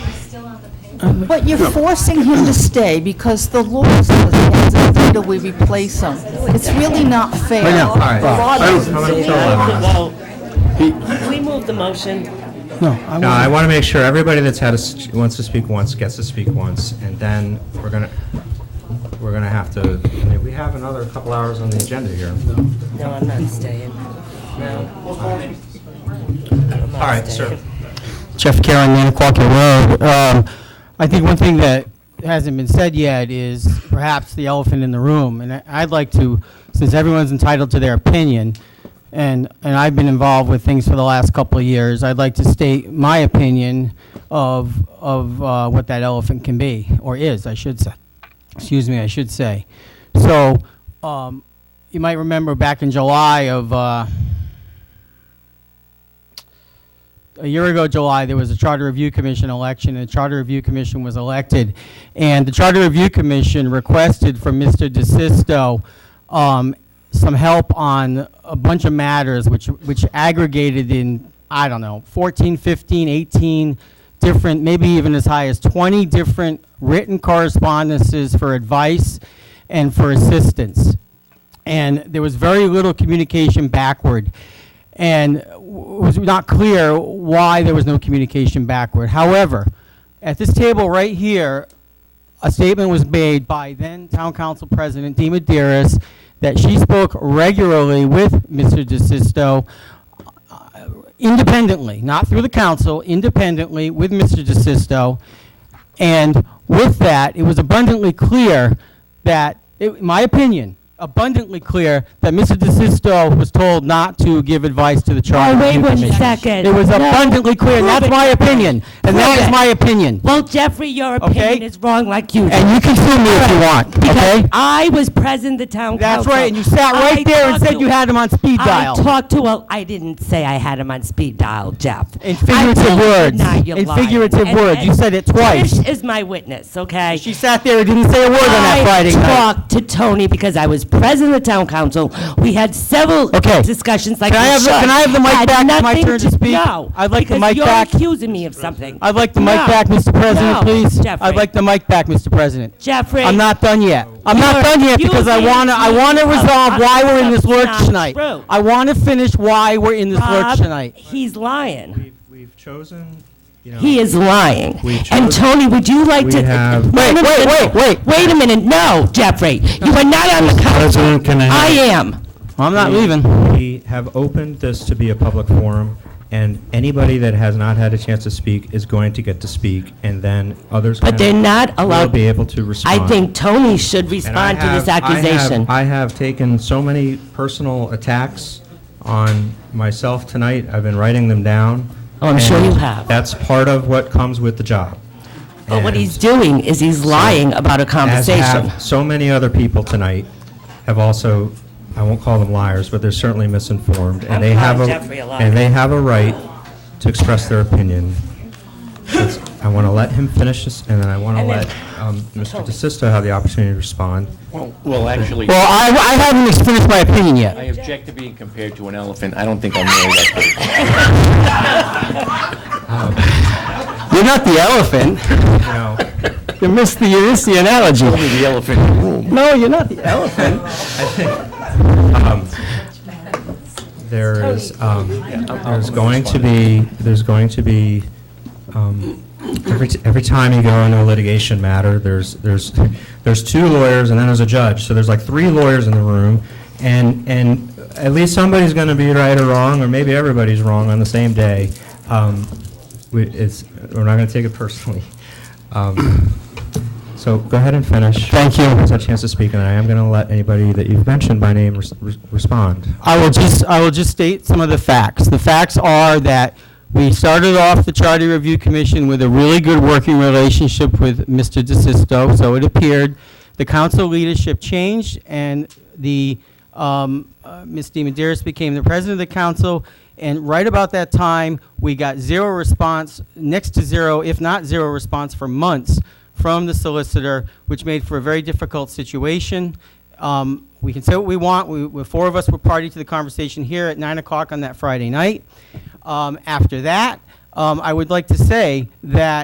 But you're forcing him to stay because the law says he has until we replace him. It's really not fair. I know. right. I don't- I don't- uh, Well, we move the motion. No, No, I I will want to make sure everybody that's had, a s- wants to speak once, gets to speak once, and then we're going to, we're going to have to, I mean, we have another couple hours on the agenda here. No, I'm not staying. No. I'm not All right, staying. sir. Jeff Karen, Nantucket Road. Um, I think one thing that hasn't been said yet is perhaps the elephant in the room, and I- I'd like to, since everyone's entitled to their opinion, and, and I've been involved with things for the last couple of years, I'd like to state my opinion of, of uh, what that elephant can be, or is, I should say. excuse me, I should say. So, um, you might remember back in July of, uh, a year ago July, there was a Charter Review Commission election, and the Charter Review Commission was elected. And the Charter Review Commission requested from Mr. DeSisto, um, some help on a bunch of matters which, which aggregated in, I don't know, 14, 15, 18 different, maybe even as high as 20 different written correspondences for advice and for assistance and there was very little communication backward. And w- it was not clear why there was no communication backward. However, at this table right here, a statement was made by then Town Council President Dee Maderis that she spoke regularly with Mr. DeSisto uh, independently, not through the council, independently with Mr. DeSisto. And with that, it was abundantly clear that, it- in my opinion, abundantly clear that Mr. DeSisto was told not to give advice to the Charter Oh, wait Review one Commission. second. It was No. abundantly clear, and Prove that's it. my opinion, and that Prove is it. my opinion. Well, Jeffrey, your opinion Okay. is wrong like you And did. you can sue me if you want, Because okay? I was president of the town council. That's right, and you sat I right there and talked said to- you had him on speed dial. I talked to, well, I didn't say I had him on speed dial, Jeff. I In figurative told you words. not, you're In lying. figurative And- words. You and said it twice. Trish is my witness, okay? She sat there and didn't say a word on that Friday I night. talked to Tony because I was president of the town council. We had several Okay. discussions like Can I we have the- should. can I have the mic Had back? It's my nothing turn to speak. No. I'd like the because mic back. you're accusing me of something. I'd like the mic No. back, Mr. President, No, please. Jeffrey. I'd like the mic back, Mr. President. Jeffrey. I'm not done yet. I'm You not are done yet because I accusing wanna, I me wanna of resolve why we're in this something lurch not tonight. true. I wanna finish why we're in this lurch Bob, tonight. He's lying. We've, we've chosen, you know. He is lying. We And chose- Tony, would you like We to? have- Wait, a wait, minute. wait, wait. Wait a minute, no, Jeffrey, you are not on the council. President, can I have- I am. I'm not We- leaving. We have opened this to be a public forum, and anybody that has not had a chance to speak is going to get to speak, and then others. But they're not Will allowed- be able to respond. I think Tony should And I respond to this have- I have- accusation. I have taken so many personal attacks on myself tonight. I've been writing them down. Oh, I'm sure and you have. That's part of what comes with the job. But what And- he's doing is he's lying about a as conversation. have so many other people tonight, have also, I won't call them liars, but they're certainly misinformed, and they have a, calling Jeffrey a liar. and they have a right to express their opinion. It's- I want to let him finish this, and then I want to And then- let um, Mr. DeSisto have the opportunity to respond. Well, actually, Well, I, I haven't finished my opinion yet. I object to being compared to an elephant. I don't think I'm really that big. You're not the elephant. You know, You missed the, you missed the analogy. Only the elephant in the room. No, you're not the elephant. there is, um, there's going to be, there's going to be, um, every, t- every time you go into a litigation matter, there's, there's, there's two lawyers and then there's a judge. So there's like three lawyers in the room, and, and at least somebody's going to be right or wrong, or maybe everybody's wrong on the same day. Um, we, it's, we're not going to take it personally. Um, so go ahead and finish. Thank you. It's a chance to speak, and I am going to let anybody that you've mentioned by name res- res- respond. I will just, I will just state some of the facts. The facts are that we started off the Charter Review Commission with a really good working relationship with Mr. DeSisto, so it appeared. The council leadership changed, and the, um, uh, Ms. DiMederos became the president of the council, and right about that time, we got zero response, next to zero, if not zero response for months from the solicitor, which made for a very difficult situation. Um, We can say what we want, we, we- four of us were party to the conversation here at 9 o'clock on that Friday night. Um, After that, um, I would like to say that